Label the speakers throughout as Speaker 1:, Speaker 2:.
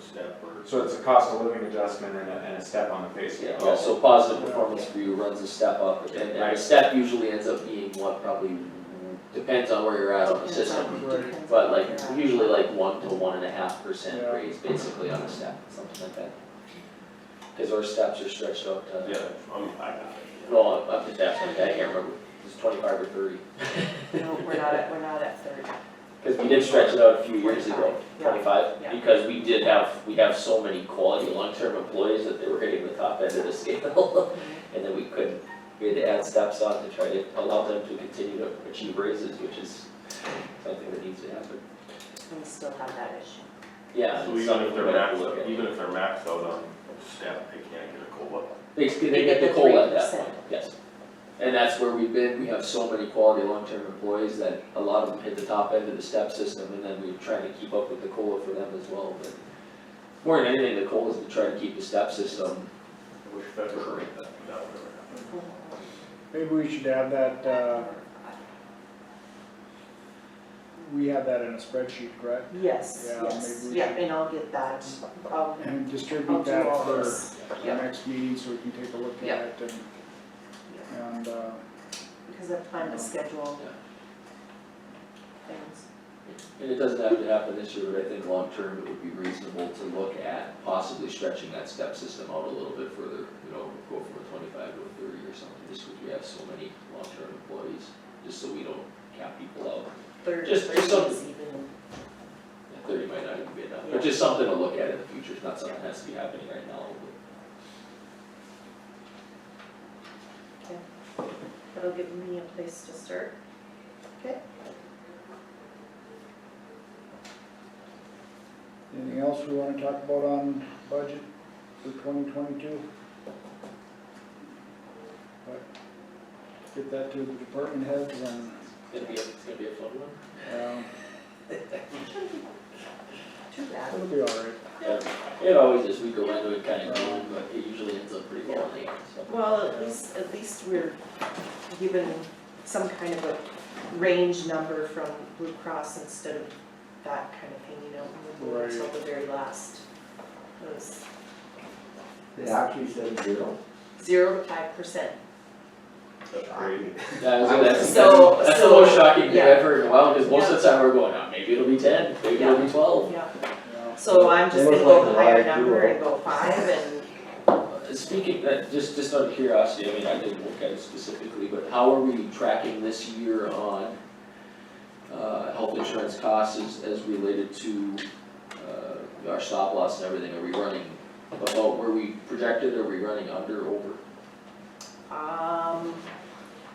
Speaker 1: step or.
Speaker 2: So it's a cost of living adjustment and a, and a step on the pay scale.
Speaker 3: Yeah, yeah, so positive performance review runs a step up, and, and a
Speaker 2: Right.
Speaker 3: step usually ends up being what probably, depends on where you're at on the system.
Speaker 4: Right.
Speaker 3: But like, usually like one to one and a half percent raise basically on a step, something like that. Cause our steps are stretched out
Speaker 1: Yeah,
Speaker 3: to,
Speaker 1: I'm, I got it. yeah.
Speaker 3: well, up- up to that point, I can't remember, it's twenty-five or thirty.
Speaker 4: No, we're not at, we're not at thirty.
Speaker 3: Cause we did stretch it out a few years ago,
Speaker 4: 25, yeah,
Speaker 3: twenty-five,
Speaker 4: yeah.
Speaker 3: because we did have, we have so many quality long-term employees that they were hitting the top end of the scale. And then we couldn't, we had to add steps on to try to allow them to continue to achieve raises, which is something that needs to happen.
Speaker 4: We still have that issue.
Speaker 3: Yeah.
Speaker 1: So
Speaker 3: it's
Speaker 1: even if
Speaker 3: something
Speaker 1: they're
Speaker 3: we have to
Speaker 1: maxed
Speaker 3: look
Speaker 1: out,
Speaker 3: at.
Speaker 1: even if they're maxed out on step, they can't get a COLA.
Speaker 3: They, they get the COLA at that point, yes. And that's where we've been, we have so many quality long-term employees that a lot of them hit the top end of the step system and then we're trying to keep up with the COLA for them as well, but more than anything, the COLA is to try to keep the step system,
Speaker 1: I wish federal rate that, that would ever happen.
Speaker 5: Maybe we should have that, uh, we have that in a spreadsheet, correct?
Speaker 4: Yes,
Speaker 5: Yeah,
Speaker 4: yes,
Speaker 5: maybe we
Speaker 4: yeah,
Speaker 5: should-
Speaker 4: and I'll get that, I'll,
Speaker 5: And
Speaker 4: I'll
Speaker 5: distribute
Speaker 4: do
Speaker 5: that
Speaker 4: all
Speaker 5: for
Speaker 4: this,
Speaker 5: the
Speaker 4: yeah,
Speaker 5: next meeting so we can take a look at
Speaker 4: Yeah.
Speaker 5: it and, and, uh,
Speaker 4: because I've planned to schedule
Speaker 3: Yeah.
Speaker 4: things.
Speaker 3: and it doesn't have to happen this year, but I think long-term, it would be reasonable to look at possibly stretching that step system out a little bit further, you know, go from a twenty-five to a thirty or something, just because we have so many long-term employees, just so we don't cap people out.
Speaker 4: Thirty,
Speaker 3: Just-
Speaker 4: thirty
Speaker 3: just
Speaker 4: is
Speaker 3: something.
Speaker 4: even,
Speaker 3: Yeah, Thirty might not even be enough,
Speaker 4: Yeah.
Speaker 3: but just something to look at in the future, it's not something that has to be happening right now.
Speaker 4: that'll give me a place to start.
Speaker 5: anything else we wanna talk about on budget for twenty twenty-two? Get that to the department heads and,
Speaker 3: It's gonna be, a- it's gonna be a fun one.
Speaker 5: um,
Speaker 4: Too bad.
Speaker 5: it'll be all right.
Speaker 3: It always is, we go into it kind of cold, but it usually ends up pretty well in the end, so.
Speaker 4: Well, at least, at least we're given some kind of a range number from Blue Cross instead of that kind of thing, you know, we'll wait until the very last. It was
Speaker 6: It actually said zero.
Speaker 4: zero to five percent.
Speaker 1: That's crazy.
Speaker 3: That is,
Speaker 6: I
Speaker 3: that's,
Speaker 4: So-
Speaker 3: that's the
Speaker 4: so-
Speaker 3: most shocking thing
Speaker 4: yeah.
Speaker 3: I've heard in a while, because most of the time we're going, oh, maybe it'll be ten, maybe it'll be twelve.
Speaker 4: Yeah,
Speaker 5: Yeah.
Speaker 4: so I'm just
Speaker 6: It
Speaker 4: gonna
Speaker 6: was
Speaker 4: go
Speaker 6: like
Speaker 4: higher
Speaker 6: a lot of
Speaker 4: number
Speaker 6: people.
Speaker 4: and go five and
Speaker 3: Uh, Speaking, that, just, just out of curiosity, I mean, I didn't look at it specifically, but how are we tracking this year on uh, health insurance costs as, as related to, uh, our stop loss and everything, are we running above, were we projected, are we running under, over?
Speaker 4: Um,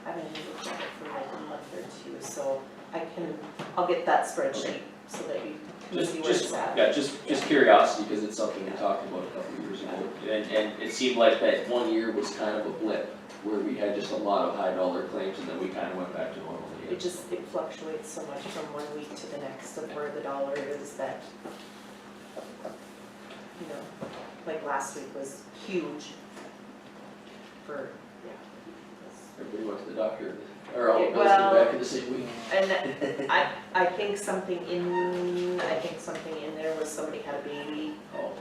Speaker 4: I haven't looked at it for like a month or two, so I can, I'll get that spreadsheet so that you can
Speaker 3: Just,
Speaker 4: see where
Speaker 3: just,
Speaker 4: it's at.
Speaker 3: yeah, just, just curiosity, cause it's something we talked about a couple years ago, and, and it seemed like that one year was kind of a blip, where we had just a lot of high dollar claims, and then we kinda went back to normal again.
Speaker 4: It just, it fluctuates so much from one week to the next of where the dollar is that, you know, like last week was huge for, yeah. it
Speaker 3: Everybody went to the doctor, or all,
Speaker 4: Yeah,
Speaker 3: goes to the
Speaker 4: well-
Speaker 3: back in the same week.
Speaker 4: was- And that- I, I think something in, I think something in there was somebody had a baby,
Speaker 3: Oh,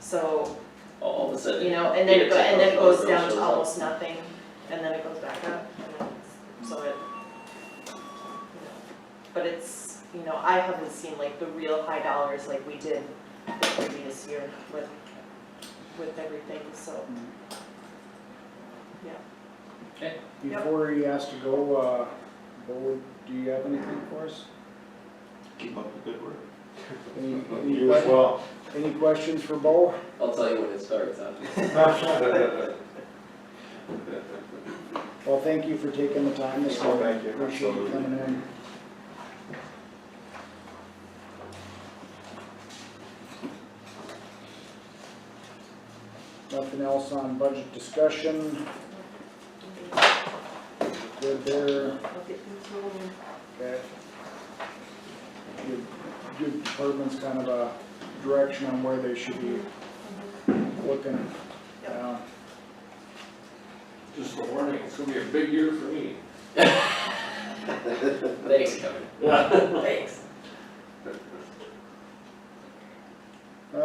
Speaker 4: so
Speaker 3: all of a sudden.
Speaker 4: you know, and then it go, and then it goes down
Speaker 3: Shows
Speaker 4: to
Speaker 3: up.
Speaker 4: almost nothing, and then it goes back up, and then, it's- so it. you know. But it's, you know, I haven't seen like the real high dollars like we did the previous year with, with everything, so. Yep.
Speaker 5: Before he has to go, uh, Bo, do you have anything for us?
Speaker 1: Keep up the good work.
Speaker 5: Any, any,
Speaker 2: Uh, You as
Speaker 5: que-
Speaker 2: well.
Speaker 5: any questions for Bo?
Speaker 3: I'll tell you when it starts, huh?
Speaker 5: Well, thank you for taking the time this
Speaker 2: Oh,
Speaker 5: morning.
Speaker 2: thank you.
Speaker 5: Appreciate you
Speaker 2: Absolutely.
Speaker 5: coming in. Nothing else on budget discussion, good there,
Speaker 4: I'll get these little-
Speaker 5: okay. Give, give departments kind of a direction on where they should be looking. Um,
Speaker 4: Yep.
Speaker 5: Yeah.
Speaker 7: Just a warning, it's gonna be a big year for me.
Speaker 3: Thanks, Kevin.
Speaker 4: Thanks.